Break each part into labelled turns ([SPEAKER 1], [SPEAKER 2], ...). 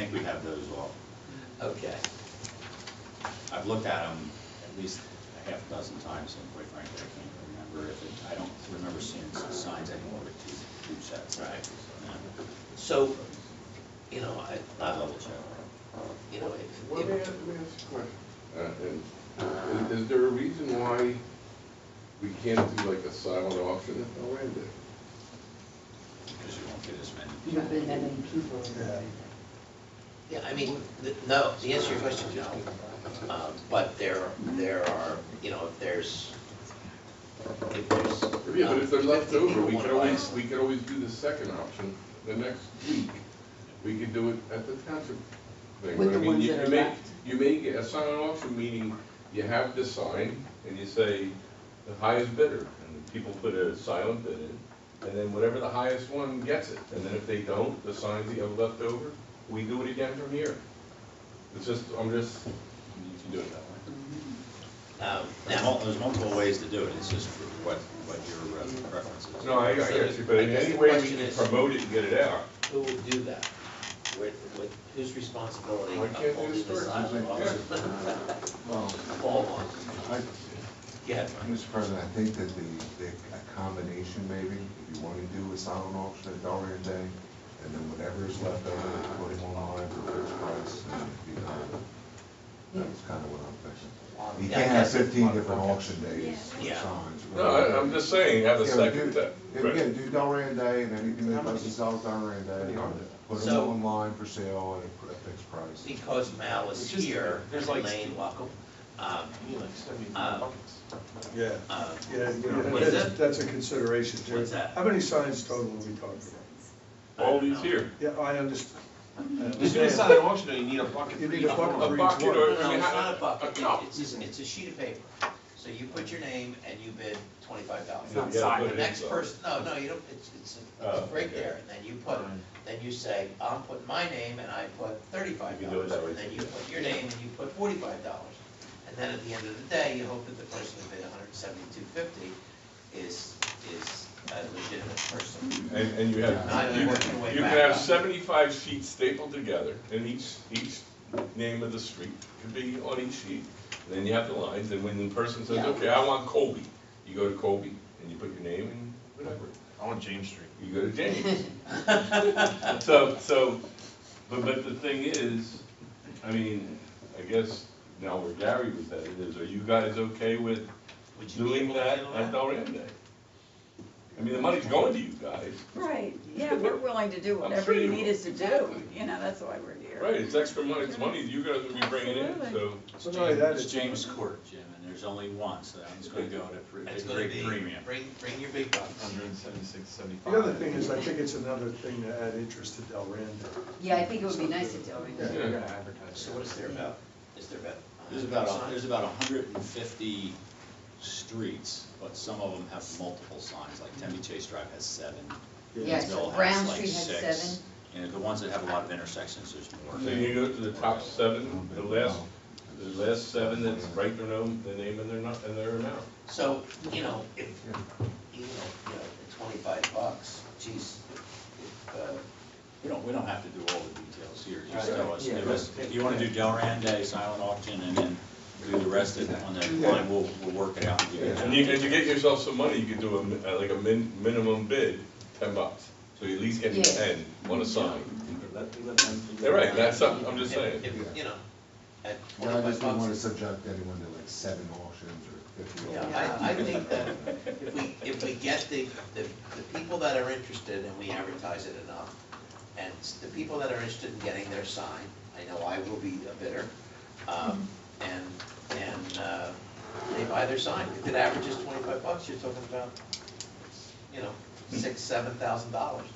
[SPEAKER 1] have those off.
[SPEAKER 2] Okay.
[SPEAKER 1] I've looked at them at least a half dozen times, and quite frankly, I can't remember if it, I don't remember seeing signs anymore with two, two sets.
[SPEAKER 2] Right.
[SPEAKER 1] Yeah.
[SPEAKER 2] So, you know, I,
[SPEAKER 1] I'll
[SPEAKER 2] I,
[SPEAKER 1] double check.
[SPEAKER 2] you know,
[SPEAKER 3] Well,
[SPEAKER 2] if,
[SPEAKER 3] may I, may I
[SPEAKER 2] if,
[SPEAKER 3] ask a question? Uh, and Is is there a reason why we can't do like a silent auction at the end?
[SPEAKER 1] Because you won't get as many.
[SPEAKER 4] You don't think that many people are
[SPEAKER 5] Yeah.
[SPEAKER 4] there.
[SPEAKER 2] yeah, I mean, th- no, the answer to your question is no. Um, But there, there are, you know, if there's, if there's.
[SPEAKER 3] Yeah, but if they're left
[SPEAKER 2] 50 people
[SPEAKER 3] over, we
[SPEAKER 2] wanna
[SPEAKER 3] could
[SPEAKER 2] buy
[SPEAKER 3] always,
[SPEAKER 2] it.
[SPEAKER 3] we could always do the second option the next week. We could do it at the township thing.
[SPEAKER 4] With
[SPEAKER 3] but I
[SPEAKER 4] the
[SPEAKER 3] mean,
[SPEAKER 4] ones
[SPEAKER 3] you-
[SPEAKER 4] that
[SPEAKER 3] you
[SPEAKER 4] are
[SPEAKER 3] may-
[SPEAKER 4] left.
[SPEAKER 3] You may get a silent auction, meaning you have the sign and you say the highest bidder. And people put a silent bid in, and then whatever the highest one gets it. And then if they don't, the signs that you have left over, we do it again from here. It's just, I'm just, you can do it that way.
[SPEAKER 2] Um,
[SPEAKER 1] There's
[SPEAKER 2] Now,
[SPEAKER 1] mul- there's multiple ways to do it, it's just what, what your uh, preference is.
[SPEAKER 3] No, I, I get you, but in
[SPEAKER 2] I guess
[SPEAKER 3] any
[SPEAKER 2] the
[SPEAKER 3] way we
[SPEAKER 2] question
[SPEAKER 3] can
[SPEAKER 2] is-
[SPEAKER 3] promote it and get it out.
[SPEAKER 2] who will do that? With, with, whose responsibility
[SPEAKER 3] Why
[SPEAKER 2] of
[SPEAKER 3] can't they
[SPEAKER 2] holding the
[SPEAKER 3] start
[SPEAKER 2] silent
[SPEAKER 3] something?
[SPEAKER 5] Well,
[SPEAKER 2] All one.
[SPEAKER 5] I,
[SPEAKER 2] Go ahead, Mike.
[SPEAKER 5] Mr. President, I think that the, the a combination maybe, if you want to do a silent auction at Darien Day, and then whatever is left over, we put it online for a fixed price, and it'd be done. That's kind of what I'm thinking. You can't have fifteen different auction days for
[SPEAKER 2] Yeah.
[SPEAKER 5] signs.
[SPEAKER 3] No, I, I'm just saying, have a
[SPEAKER 5] Yeah, we
[SPEAKER 3] second
[SPEAKER 5] do-
[SPEAKER 3] that.
[SPEAKER 5] Yeah, we can do Darien Day, and anything that doesn't sell Darien Day, put them
[SPEAKER 2] So-
[SPEAKER 5] online for sale at a fixed price.
[SPEAKER 2] because Mal is here, Elaine, welcome. Um, um,
[SPEAKER 6] Yeah,
[SPEAKER 2] um,
[SPEAKER 6] yeah, you know,
[SPEAKER 2] What is it?
[SPEAKER 6] that's, that's a consideration too.
[SPEAKER 2] What's that?
[SPEAKER 6] How many signs total are we talking about?
[SPEAKER 3] All these here.
[SPEAKER 6] Yeah, I understand.
[SPEAKER 7] If you're inside an auction, you need a bucket
[SPEAKER 6] You
[SPEAKER 7] for
[SPEAKER 6] need
[SPEAKER 7] each
[SPEAKER 6] a bucket
[SPEAKER 7] one.
[SPEAKER 6] for each
[SPEAKER 3] bucket
[SPEAKER 6] one.
[SPEAKER 3] or-
[SPEAKER 2] No, no,
[SPEAKER 3] I mean,
[SPEAKER 2] it's
[SPEAKER 3] how-
[SPEAKER 2] not a bucket,
[SPEAKER 3] no.
[SPEAKER 2] It- it's, a- it's a sheet of paper. So you put your name and you bid twenty-five dollars.
[SPEAKER 3] It's not You gotta put
[SPEAKER 2] The
[SPEAKER 3] it
[SPEAKER 2] next
[SPEAKER 3] inside.
[SPEAKER 2] person, no, no, you don't, it's, it's,
[SPEAKER 3] Oh,
[SPEAKER 2] it's right
[SPEAKER 3] okay.
[SPEAKER 2] there, and then you put, then you say, I'm putting my name and I put thirty-five
[SPEAKER 3] You can do it
[SPEAKER 2] dollars.
[SPEAKER 3] that way.
[SPEAKER 2] And then you put your name and you put forty-five dollars. And then at the end of the day, you hope that the person who bid hundred and seventy-two fifty is, is a legitimate person.
[SPEAKER 3] And, and you
[SPEAKER 2] Now
[SPEAKER 3] have,
[SPEAKER 2] you're
[SPEAKER 3] you,
[SPEAKER 2] working your way
[SPEAKER 3] you can
[SPEAKER 2] back
[SPEAKER 3] have
[SPEAKER 2] up.
[SPEAKER 3] seventy-five sheets stapled together, and each, each name of the street could be on each sheet. And Then you have the lines, and when the person says,
[SPEAKER 4] Yeah.
[SPEAKER 3] okay, I want Kobe, you go to Kobe, and you put your name and whatever.
[SPEAKER 7] I want James Street.
[SPEAKER 3] You go to James. So, so, but, but the thing is, I mean, I guess now where Gary was at it is, are you guys okay with
[SPEAKER 2] Would you be
[SPEAKER 3] doing
[SPEAKER 2] able to
[SPEAKER 3] that
[SPEAKER 2] handle
[SPEAKER 3] at Delran Day? I mean, the money's going to you guys,
[SPEAKER 8] Right, yeah, we're willing to do
[SPEAKER 3] I'm
[SPEAKER 8] whatever you
[SPEAKER 3] sure you
[SPEAKER 8] need
[SPEAKER 3] will.
[SPEAKER 8] us to do, you know, that's why we're here.
[SPEAKER 3] right, it's extra money, it's money you guys will be bringing in, so.
[SPEAKER 6] So not only that,
[SPEAKER 1] It's
[SPEAKER 6] it's,
[SPEAKER 1] James Court, Jim, and there's only one, so that one's gonna go at a pre-
[SPEAKER 2] And
[SPEAKER 1] a
[SPEAKER 2] it's gonna
[SPEAKER 1] great
[SPEAKER 2] be,
[SPEAKER 1] premium.
[SPEAKER 2] bring, bring your big bucks.
[SPEAKER 7] Hundred and seventy-six, seventy-five.
[SPEAKER 6] the other thing is, I think it's another thing to add interest to Del Rande.
[SPEAKER 4] Yeah, I think it would be nice if Delran did.
[SPEAKER 7] You're gonna advertise.
[SPEAKER 2] So what is there about, is there about?
[SPEAKER 1] There's about, a- there's about hundred and fifty streets, but some of them have multiple signs, like Tempe Chase Drive has seven.
[SPEAKER 4] Yes,
[SPEAKER 1] Hinsdale has
[SPEAKER 4] Brown
[SPEAKER 1] like
[SPEAKER 4] Street has
[SPEAKER 1] six,
[SPEAKER 4] seven.
[SPEAKER 1] And the ones that have a lot of intersections, there's more.
[SPEAKER 3] Then you go to the top seven, the last, the last seven that's right their name, the name and their, nu- and their amount.
[SPEAKER 2] So, you know, if, you know, you know, the twenty-five bucks, geez, if, uh,
[SPEAKER 1] We don't, we don't have to do all the details here, just
[SPEAKER 2] Right.
[SPEAKER 1] tell us, give us, if you wanna do Delran Day, silent auction, and then do the rest of it on the
[SPEAKER 5] Yeah.
[SPEAKER 1] line, we'll, we'll work it out and give it
[SPEAKER 3] And you,
[SPEAKER 1] to
[SPEAKER 3] and
[SPEAKER 1] you.
[SPEAKER 3] you get yourself some money, you could do a, mi- uh, like a min, minimum bid, ten bucks, so you at least get
[SPEAKER 4] Yeah.
[SPEAKER 3] ten on a sign. Yeah, right, that's, something- I'm just saying.
[SPEAKER 2] if, if, you know, at
[SPEAKER 5] Yeah, I
[SPEAKER 2] twenty-five
[SPEAKER 5] just didn't want to
[SPEAKER 2] bucks.
[SPEAKER 5] subject anyone to like seven auctions or fifty.
[SPEAKER 2] Yeah, I, I think that if we, if we get the, the, the people that are interested and we advertise it enough, and s- the people that are interested in getting their sign, I know I will be a bidder, um, and, and, uh, they buy their sign, if it averages twenty-five bucks, you're talking about, you know,
[SPEAKER 7] Hmm.
[SPEAKER 2] six, seven thousand dollars.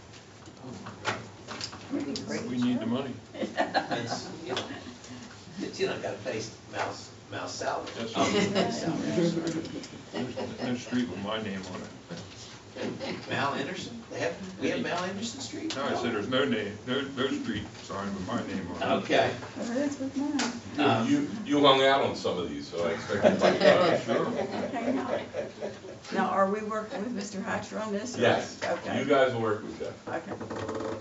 [SPEAKER 7] We need the money.
[SPEAKER 2] It's, you know, it's, you know, gotta face Mal's, Mal's salary.
[SPEAKER 7] That's
[SPEAKER 2] Oh,
[SPEAKER 7] right.
[SPEAKER 2] Mal's salary, sorry.
[SPEAKER 7] No street with my name on it.
[SPEAKER 2] Mal Anderson, they have, we have Mal Anderson Street?
[SPEAKER 7] No, I said there's no name, no, no street sign with my name on it.
[SPEAKER 2] Okay,
[SPEAKER 8] There it is with mine.
[SPEAKER 2] Um,
[SPEAKER 3] You, you hung out on some of these, so I expect you might
[SPEAKER 7] Oh, sure.
[SPEAKER 8] Okay, now- Now, are we working with Mr. Hatcher on this? or-
[SPEAKER 3] Yes, you
[SPEAKER 8] Okay,
[SPEAKER 3] guys will work with that.
[SPEAKER 8] okay.